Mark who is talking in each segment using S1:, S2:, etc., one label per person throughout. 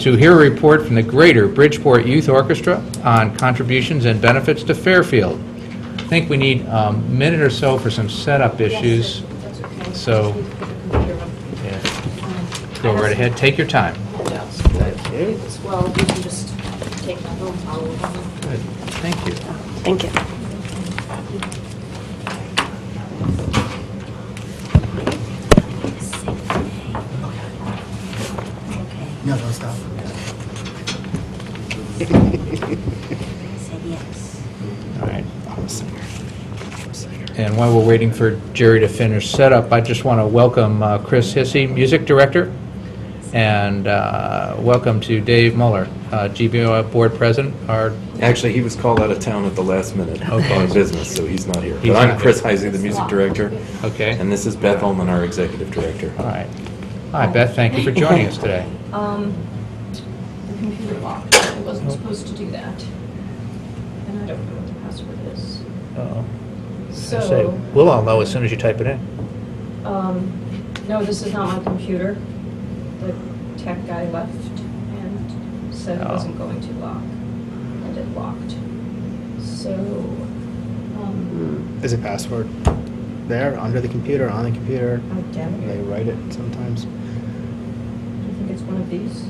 S1: to hear a report from the Greater Bridgeport Youth Orchestra on contributions and benefits to Fairfield. I think we need a minute or so for some setup issues.
S2: That's okay.
S1: So-
S2: Just need to put the computer on.
S1: Yeah,
S2: Um,
S1: Go
S2: I
S1: right
S2: have some
S1: ahead, take your time.
S2: handouts, but if it's Well, you can just take them home, follow along.
S1: Good, Thank you.
S3: Thank you.
S4: No, don't stop.
S1: All right. And while we're waiting for Jerry to finish setup, I just want to welcome uh, Chris Hissey, Music Director, and uh, welcome to Dave Muller, uh, GBO Board President. Our-
S5: Actually, he was called out of town at the last minute
S1: Okay.
S5: on business, so he's not here.
S1: He's
S5: But I'm
S1: not
S5: Chris
S1: here.
S5: Heisey, the music director,
S1: Okay,
S5: and this is Beth Ullman, our executive director.
S1: all right. Hi, Beth, thank you for joining us today.
S2: Um, the computer locked. I wasn't supposed to do that. And I don't know what the password is.
S1: Uh-oh. Say,
S2: So,
S1: We'll all know as soon as you type it in.
S2: um, no, this is not my computer. The tech guy left and said it
S1: Oh.
S2: wasn't going to lock, and it locked. So, um,
S4: There's a password there, under the computer, on the computer.
S2: oh, damn
S4: They
S2: it.
S4: write it sometimes.
S2: I think it's one of these.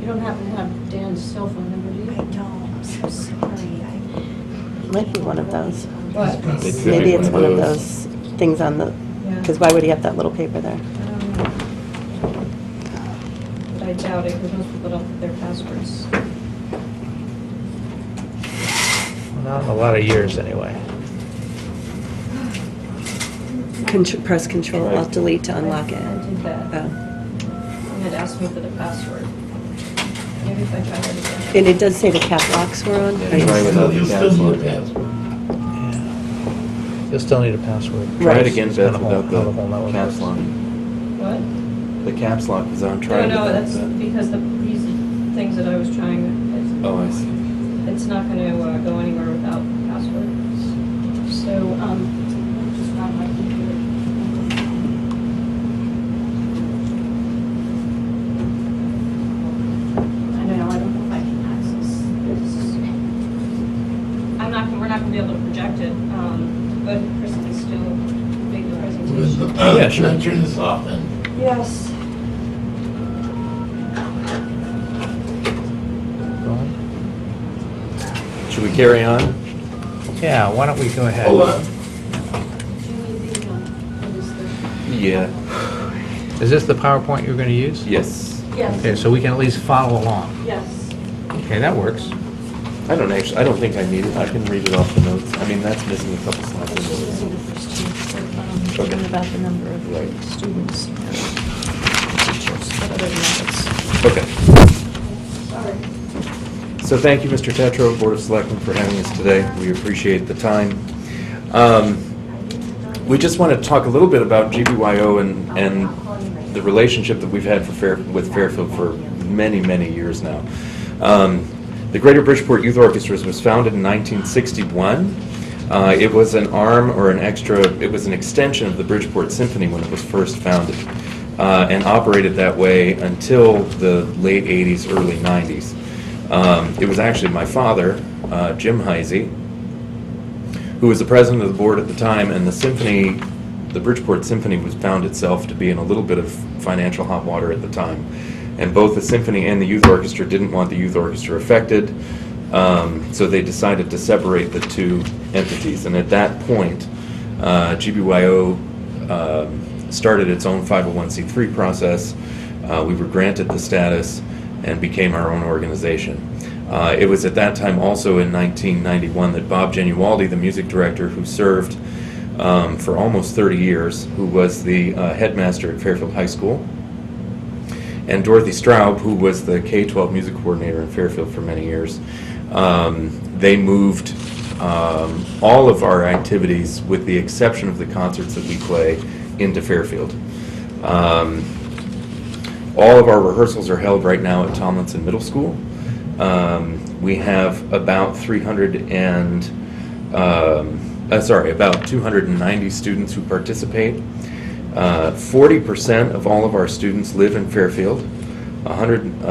S2: You don't happen to have Dan's cell phone number, do
S6: I
S2: you?
S6: don't, I'm so sorry. I-
S3: Might be one of those.
S2: What?
S5: They could be
S3: Maybe it's one of those things on the,
S2: Yeah.
S3: because why would he have that little paper there?
S2: I don't know. Um, But I doubt it, because most people don't put their passwords.
S1: Not in a lot of years, anyway.
S3: Contr- Press Control, Alt Delete to unlock
S2: I
S3: it.
S2: did that.
S3: Oh.
S2: And it asked me for the password. Maybe if I try that again.
S3: And it does say the cap locks were on.
S5: Yeah, Try without the password.
S1: You'll still need a password.
S5: Try
S3: Right.
S5: it again,
S1: It's been a
S5: Beth,
S1: whole-
S5: without
S1: hell of a whole lot
S5: the
S1: of
S5: caps
S1: words.
S5: lock.
S2: What?
S5: The caps lock is on, try
S2: No,
S5: it
S2: no,
S5: without
S2: that's
S5: that.
S2: because the, these things that I was trying,
S5: Oh, I see.
S2: it's, it's not gonna uh, go anywhere without passwords. So, um, just found my computer. I don't know, I don't know if I can access this. I'm not, we're not gonna be able to project it, um, but Chris can still make the presentation.
S1: Yeah, sure.
S7: Can I Turn this off then.
S2: Yes.
S1: Go on.
S5: Should we carry on?
S1: Yeah, why don't we go ahead?
S7: Hold on.
S2: um,
S5: Yeah,
S1: Is this the PowerPoint you're going to use?
S5: yes.
S1: Okay,
S2: Yes,
S1: so we can at least follow along.
S2: yes.
S1: Okay, that works.
S5: I don't actually, I don't think I need it. I can read it off the notes. I mean, that's missing a couple slides.
S6: Those are the first two, so, um,
S5: Okay.
S6: one about the number of students and teachers, but other than that, it's-
S5: Okay.
S2: Sorry.
S5: So thank you, Mr. Tetro, Board of Selectmen, for having us today. We appreciate the time. Um, We just want to talk a little bit about GBYO and, and the relationship that we've had for Fair, with Fairfield for many, many years now. Um, The Greater Bridgeport Youth Orchestra was founded in 1961. Uh, It was an arm or an extra, it was an extension of the Bridgeport Symphony when it was first founded, uh, and operated that way until the late 80s, early 90s. Um, It was actually my father, uh, Jim Heisey, who was the president of the board at the time, and the symphony, the Bridgeport Symphony was found itself to be in a little bit of financial hot water at the time. And both the symphony and the youth orchestra didn't want the youth orchestra affected, um, so they decided to separate the two entities. And at that point, uh, GBYO um, started its own 501c3 process. Uh, we were granted the status and became our own organization. Uh, It was at that time also in 1991 that Bob Genualdi, the music director who served um, for almost 30 years, who was the uh, headmaster at Fairfield High School, and Dorothy Straub, who was the K-12 music coordinator in Fairfield for many years, um, they moved um, all of our activities, with the exception of the concerts that we play, into Fairfield. Um, all of our rehearsals are held right now at Tomlinson Middle School. Um, we have about 300 and, um, uh, sorry, about 290 students who participate. Uh, 40% of all of our students live in Fairfield. 100, uh,